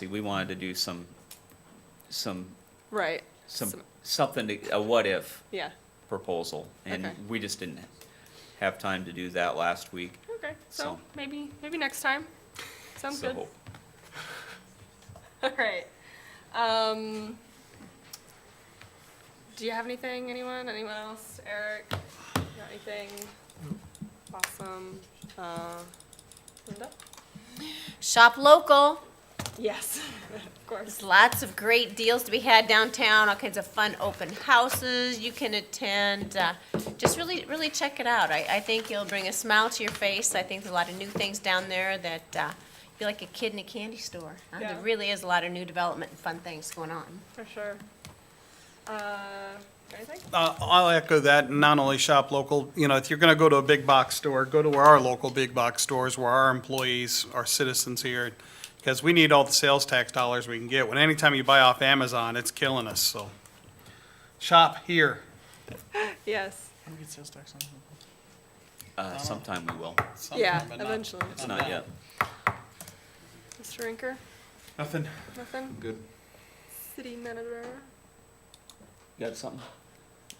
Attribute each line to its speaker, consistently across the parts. Speaker 1: See, we wanted to do some, some,
Speaker 2: Right.
Speaker 1: some,
Speaker 2: Some-
Speaker 1: something, to- a what-if
Speaker 2: Yeah.
Speaker 1: proposal. And
Speaker 2: Okay.
Speaker 1: we just didn't have time to do that last week.
Speaker 2: Okay. So,
Speaker 1: So-
Speaker 2: maybe maybe next time. Sounds
Speaker 1: so-
Speaker 2: good. All right. Um, do you have anything? Anyone? Anyone else? Eric? Got anything? Awesome. Uh, Linda?
Speaker 3: Shop local.
Speaker 2: Yes. of course.
Speaker 3: There's lots of great deals to be had downtown, all kinds of fun open houses you can attend. Uh, just really, really check it out. I, I think you'll bring a smile to your face. I think there's a lot of new things down there that uh, you're like a kid in a candy store. Uh,
Speaker 2: Yeah.
Speaker 3: There really is a lot of new development and fun things going on.
Speaker 2: For sure. Uh, anything?
Speaker 4: Uh, I'll echo that, and not only shop local, you know, if you're going to go to a big box store, go to where our local big box stores, where our employees, our citizens here, because we need all the sales tax dollars we can get. When anytime you buy off Amazon, it's killing us, so shop here.
Speaker 2: Yes.
Speaker 4: When we get sales tax on?
Speaker 1: Uh, sometime we will.
Speaker 4: Um,
Speaker 2: Yeah. Eventually.
Speaker 1: It's not yet.
Speaker 2: Mr. Rinker?
Speaker 4: Nothing.
Speaker 2: Nothing.
Speaker 4: Good.
Speaker 2: City manager.
Speaker 1: Got something?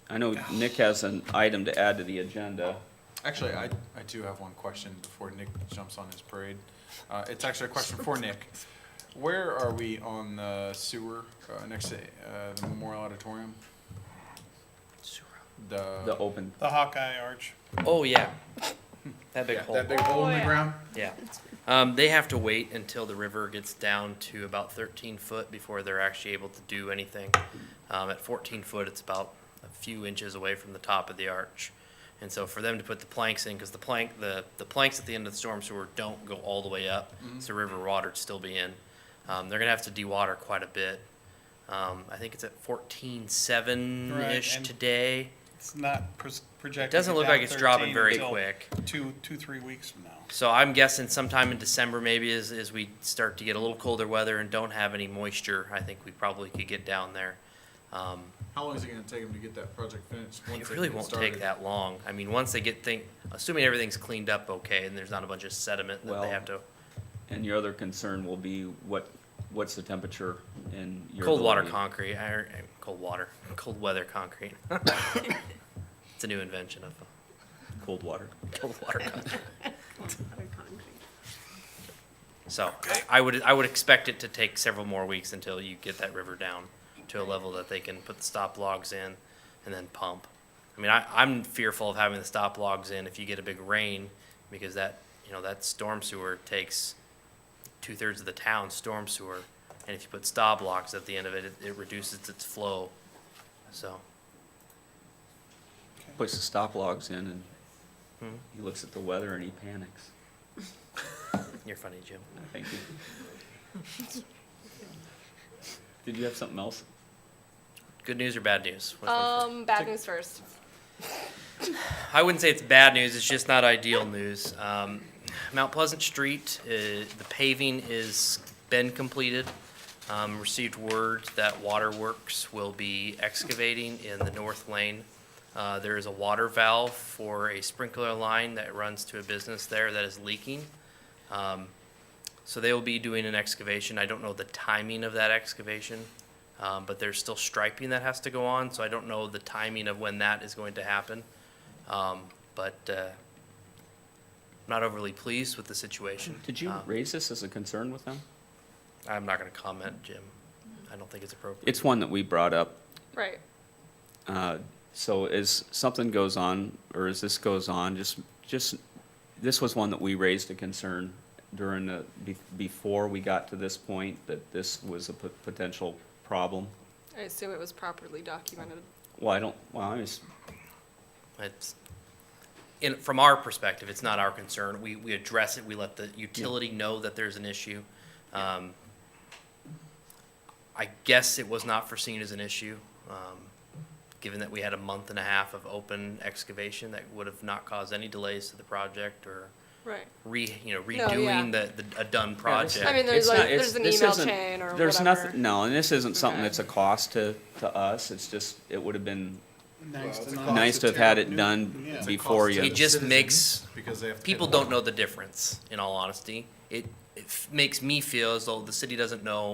Speaker 1: I know Nick has an item to add to the agenda.
Speaker 5: Actually, I, I do have one question before Nick jumps on his parade. Uh, it's actually a question for Nick. Where are we on the sewer, uh, next to, uh, the Memorial Auditorium?
Speaker 1: The
Speaker 5: The,
Speaker 1: open,
Speaker 4: The Hawkeye Arch.
Speaker 6: Oh yeah, that big
Speaker 5: yeah,
Speaker 6: hole.
Speaker 5: that big hole in
Speaker 2: Oh,
Speaker 5: the
Speaker 2: yeah.
Speaker 5: ground?
Speaker 6: yeah, um, they have to wait until the river gets down to about 13 foot before they're actually able to do anything. Um, at 14 foot, it's about a few inches away from the top of the arch, and so for them to put the planks in, because the plank, the the planks at the end of the storm sewer don't go all the way up,
Speaker 4: Mm-hmm.
Speaker 6: so river water'd still be in. Um, they're gonna have to dewater quite a bit. Um, I think it's at 14.7 ish
Speaker 4: Right, and-
Speaker 6: today.
Speaker 4: It's not pros-
Speaker 6: It
Speaker 4: projected.
Speaker 6: doesn't look
Speaker 4: down
Speaker 6: like it's
Speaker 4: 13
Speaker 6: dropping very
Speaker 4: until
Speaker 6: quick.
Speaker 4: Two, two, three weeks from now.
Speaker 6: So I'm guessing sometime in December, maybe as, as we start to get a little colder weather and don't have any moisture, I think we probably could get down there. Um,
Speaker 5: How long is it gonna take them to get that project finished? once
Speaker 6: it
Speaker 5: they
Speaker 6: really
Speaker 5: get
Speaker 6: won't
Speaker 5: started?
Speaker 6: take that long. I mean, once they get thing, assuming everything's cleaned up okay and there's not a bunch of sediment that
Speaker 1: Well-
Speaker 6: they have to,
Speaker 1: and your other concern will be what, what's the temperature in your.
Speaker 6: cold water
Speaker 1: ability-
Speaker 6: concrete, or, uh, cold water, cold weather concrete. It's a new invention of uh,
Speaker 1: Cold water.
Speaker 6: cold water concrete. So I- I would, I would expect it to take several more weeks until you get that river down to a level that they can put the stop logs in and then pump. I mean, I, I'm fearful of having the stop logs in if you get a big rain because that, you know, that storm sewer takes two thirds of the town's storm sewer. And if you put stop logs at the end of it, it, it reduces its flow. So,
Speaker 1: Puts the stop logs in and
Speaker 6: Hmm.
Speaker 1: he looks at the weather and he panics.
Speaker 6: you're funny, Jim.
Speaker 1: Thank you. Did you have something else?
Speaker 6: Good news or bad news? Which one first?
Speaker 2: Um, bad news first.
Speaker 6: I wouldn't say it's bad news, it's just not ideal news. Um, Mount Pleasant Street, uh, the paving is been completed. Um, received word that Waterworks will be excavating in the north lane. Uh, there is a water valve for a sprinkler line that runs to a business there that is leaking. Um, so they will be doing an excavation. I don't know the timing of that excavation, um, but there's still striping that has to go on, so I don't know the timing of when that is going to happen. Um, but uh, not overly pleased with the situation.
Speaker 1: Did you
Speaker 6: Um,
Speaker 1: raise this as a concern with them?
Speaker 6: I'm not going to comment, Jim. I don't think it's appropriate.
Speaker 1: It's one that we brought up.
Speaker 2: Right.
Speaker 1: Uh, So as something goes on, or as this goes on, just, just, this was one that we raised a concern during the, be- before we got to this point, that this was a pot- potential problem.
Speaker 2: I assume it was properly documented.
Speaker 1: Well, I don't, well, I just,
Speaker 6: It's, in, from our perspective, it's not our concern. We, we address it, we let the utility know that there's an issue. Um, I guess it was not foreseen as an issue, um, given that we had a month and a half of open excavation that would have not caused any delays to the project or
Speaker 2: Right.
Speaker 6: re, you know,
Speaker 2: yeah.
Speaker 6: redoing the, the, a done project.
Speaker 2: I mean, there's
Speaker 1: It's
Speaker 2: like,
Speaker 1: not- it's-
Speaker 2: there's an
Speaker 1: this
Speaker 2: email
Speaker 1: isn't-
Speaker 2: chain or
Speaker 1: There's
Speaker 2: whatever.
Speaker 1: nothing, no, and this isn't something
Speaker 2: Okay.
Speaker 1: that's a cost to, to us, it's just, it would have been
Speaker 5: Nice to know.
Speaker 1: nice to have had it done
Speaker 5: It's a
Speaker 1: before
Speaker 5: cost to
Speaker 1: you.
Speaker 6: It
Speaker 5: the
Speaker 6: just
Speaker 5: citizens
Speaker 6: makes-
Speaker 5: Because they have to. pay
Speaker 6: People
Speaker 5: the
Speaker 6: don't
Speaker 5: water.
Speaker 6: know the difference, in all honesty. It, it f- makes me feel as though the city doesn't know